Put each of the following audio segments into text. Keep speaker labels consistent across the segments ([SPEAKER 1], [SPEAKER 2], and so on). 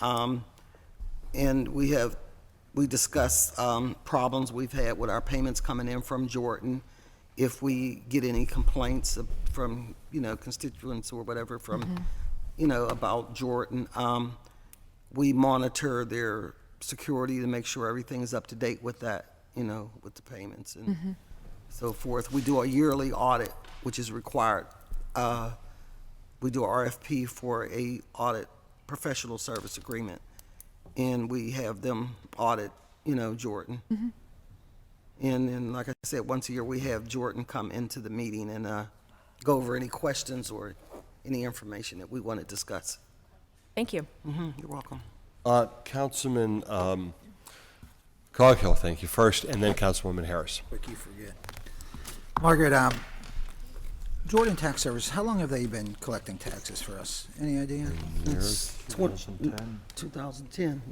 [SPEAKER 1] Um, And we have, we discussed um, problems we've had with our payments coming in from Jordan. If we get any complaints of- from, you know, constituents or whatever from, you know, about Jordan, um, we monitor their security to make sure everything's up to date with that, you know, with the payments and so forth. We do a yearly audit, which is required. Uh, We do a RFP for a audit professional service agreement, and we have them audit, you know, Jordan. And then, like I said, once a year, we have Jordan come into the meeting and uh, go over any questions or any information that we want to discuss.
[SPEAKER 2] Thank you.
[SPEAKER 1] Mhm, You're welcome.
[SPEAKER 3] Uh, Councilman um, Coghill, thank you first, and then Councilwoman Harris.
[SPEAKER 4] Rick, you forget. Margaret, um, Jordan Tax Service, how long have they been collecting taxes for us? Any
[SPEAKER 1] Mm.
[SPEAKER 4] idea?
[SPEAKER 3] Harris?
[SPEAKER 1] 2010,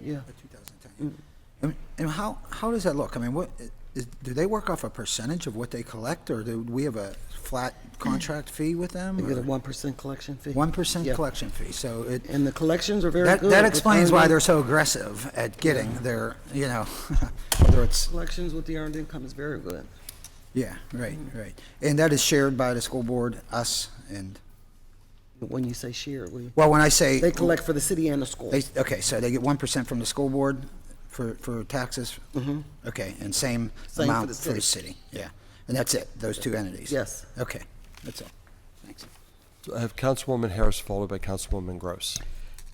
[SPEAKER 1] yeah.
[SPEAKER 4] 2010. And- And how, how does that look? I mean, what, is, do they work off a percentage of what they collect, or do we have a flat contract fee with them?
[SPEAKER 1] They get a
[SPEAKER 4] or-
[SPEAKER 1] 1% collection fee.
[SPEAKER 4] One percent
[SPEAKER 1] Yeah.
[SPEAKER 4] collection fee, so it,
[SPEAKER 1] And the collections are very
[SPEAKER 4] that,
[SPEAKER 1] good.
[SPEAKER 4] that
[SPEAKER 1] with
[SPEAKER 4] explains why
[SPEAKER 1] earned
[SPEAKER 4] they're so aggressive at getting their, you know, whether it's
[SPEAKER 1] Collections with the earned income is very good.
[SPEAKER 4] Yeah, right, right. And that is shared by the school board, us, and,
[SPEAKER 1] But When you say share, we,
[SPEAKER 4] well, when I say.
[SPEAKER 1] they collect for the city and the school.
[SPEAKER 4] They, okay, so they get one percent from the school board for, for taxes? Mm-hmm. Okay, and same
[SPEAKER 1] for the
[SPEAKER 4] amount for
[SPEAKER 1] city.
[SPEAKER 4] the city, yeah. And that's it, those two entities?
[SPEAKER 1] Yes.
[SPEAKER 4] Okay, that's all. Thanks.
[SPEAKER 3] I have Councilwoman Harris followed by Councilwoman Gross.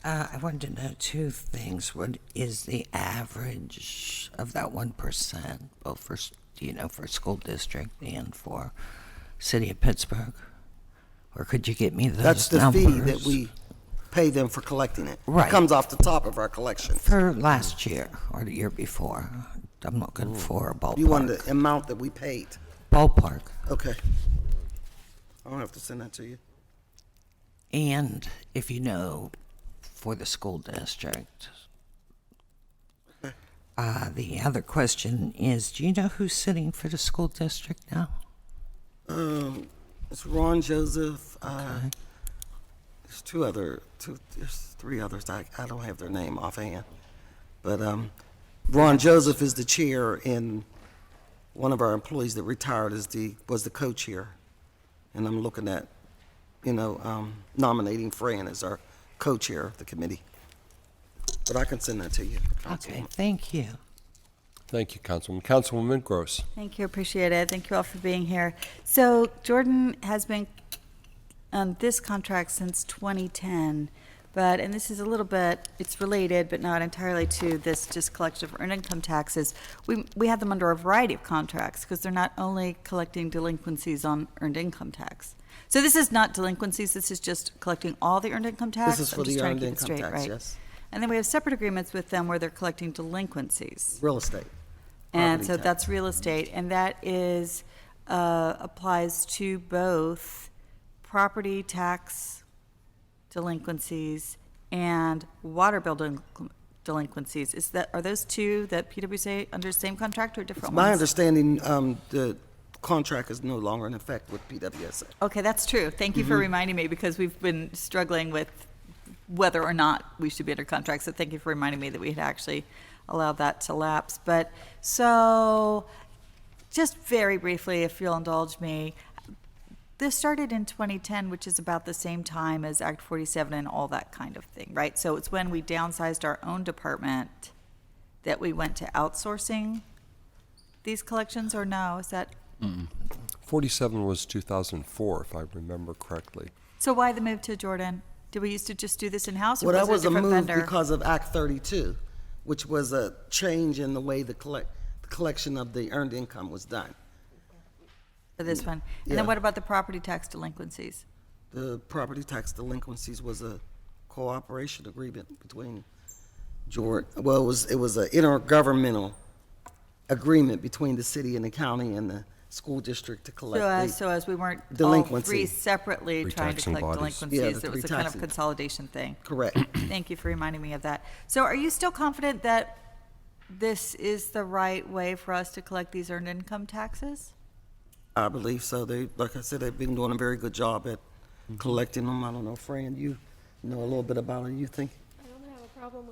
[SPEAKER 5] Uh, I wanted to know two things. What is the average of that one percent, both for s- you know for school district and for city of Pittsburgh? Or could you get me those
[SPEAKER 1] That's the
[SPEAKER 5] numbers
[SPEAKER 1] fee that we pay them for collecting it. It
[SPEAKER 5] Right.
[SPEAKER 1] Comes off the top of our collection.
[SPEAKER 5] for last year or the year before? I'm looking for a ballpark.
[SPEAKER 1] You want the amount that we paid.
[SPEAKER 5] ballpark?
[SPEAKER 1] Okay. I don't have to send that to you.
[SPEAKER 5] And if you know for the school district. Uh, the other question is, do you know who's sitting for the school district now?
[SPEAKER 1] It's Ron Joseph, uh, there's two other, two, there's three others. I, I don't have their name offhand. But, um, Ron Joseph is the chair and one of our employees that retired is the, was the co-chair. And I'm looking at, you know, um, nominating Fran as our co-chair of the committee. But I can send that to you.
[SPEAKER 5] Okay, thank you.
[SPEAKER 3] Thank you, Councilwoman. Councilwoman Gross.
[SPEAKER 6] Thank you, appreciate it. Thank you all for being here. So Jordan has been on this contract since 2010, but, and this is a little bit, it's related, but not entirely to this just collection of earned income taxes. We, we have them under a variety of contracts because they're not only collecting delinquencies on earned income tax. So this is not delinquencies, this is just collecting all the earned income tax.
[SPEAKER 1] is
[SPEAKER 6] I'm
[SPEAKER 1] for
[SPEAKER 6] just
[SPEAKER 1] the
[SPEAKER 6] trying to
[SPEAKER 1] earned
[SPEAKER 6] keep it
[SPEAKER 1] income
[SPEAKER 6] straight,
[SPEAKER 1] tax,
[SPEAKER 6] right.
[SPEAKER 1] yes.
[SPEAKER 6] And then we have separate agreements with them where they're collecting delinquencies.
[SPEAKER 1] Real estate.
[SPEAKER 6] And
[SPEAKER 1] Property
[SPEAKER 6] so
[SPEAKER 1] tax.
[SPEAKER 6] that's real estate, and that is, uh, applies to both property tax delinquencies and water bill delinqu- delinquencies. Is that, are those two that PWC under same contract or different
[SPEAKER 1] My
[SPEAKER 6] ones?
[SPEAKER 1] understanding, um, the contract is no longer in effect with PWSA.
[SPEAKER 6] Okay, that's true. Thank you for reminding me, because we've been struggling with whether or not we should be under contract, so thank you for reminding me that we had actually allowed that to lapse. But, so, just very briefly, if you'll indulge me, this started in 2010, which is about the same time as Act 47 and all that kind of thing, right? So it's when we downsized our own department that we went to outsourcing these collections, or no? Is that,
[SPEAKER 3] 47 was 2004, if I remember correctly.
[SPEAKER 6] so why the move to Jordan? Did we used to just do this in-house, or
[SPEAKER 1] Well, that was
[SPEAKER 6] was
[SPEAKER 1] a
[SPEAKER 6] it a different
[SPEAKER 1] move
[SPEAKER 6] vendor?
[SPEAKER 1] because of Act 32, which was a change in the way the collect, the collection of the earned income was done.
[SPEAKER 6] For this one? And
[SPEAKER 1] Yeah.
[SPEAKER 6] then what about the property tax delinquencies?
[SPEAKER 1] The property tax delinquencies was a cooperation agreement between Jordan, well, it was, it was an intergovernmental agreement between the city and the county and the school district to collect.
[SPEAKER 6] So as,
[SPEAKER 1] the-
[SPEAKER 6] so as we weren't all
[SPEAKER 1] Delinquency.
[SPEAKER 6] three separately
[SPEAKER 3] Three
[SPEAKER 6] trying to
[SPEAKER 3] taxing
[SPEAKER 6] collect
[SPEAKER 3] bodies. Yeah,
[SPEAKER 6] delinquencies,
[SPEAKER 1] the
[SPEAKER 6] it
[SPEAKER 1] three
[SPEAKER 6] was a kind of
[SPEAKER 1] taxing-
[SPEAKER 6] consolidation thing.
[SPEAKER 1] Correct.
[SPEAKER 6] Thank you for reminding me of that. So are you still confident that this is the right way for us to collect these earned income taxes?
[SPEAKER 1] I believe so. They, like I said, they've been doing a very good job at collecting them. I don't know, Fran, you know a little bit about it, you think?
[SPEAKER 7] I don't have a problem with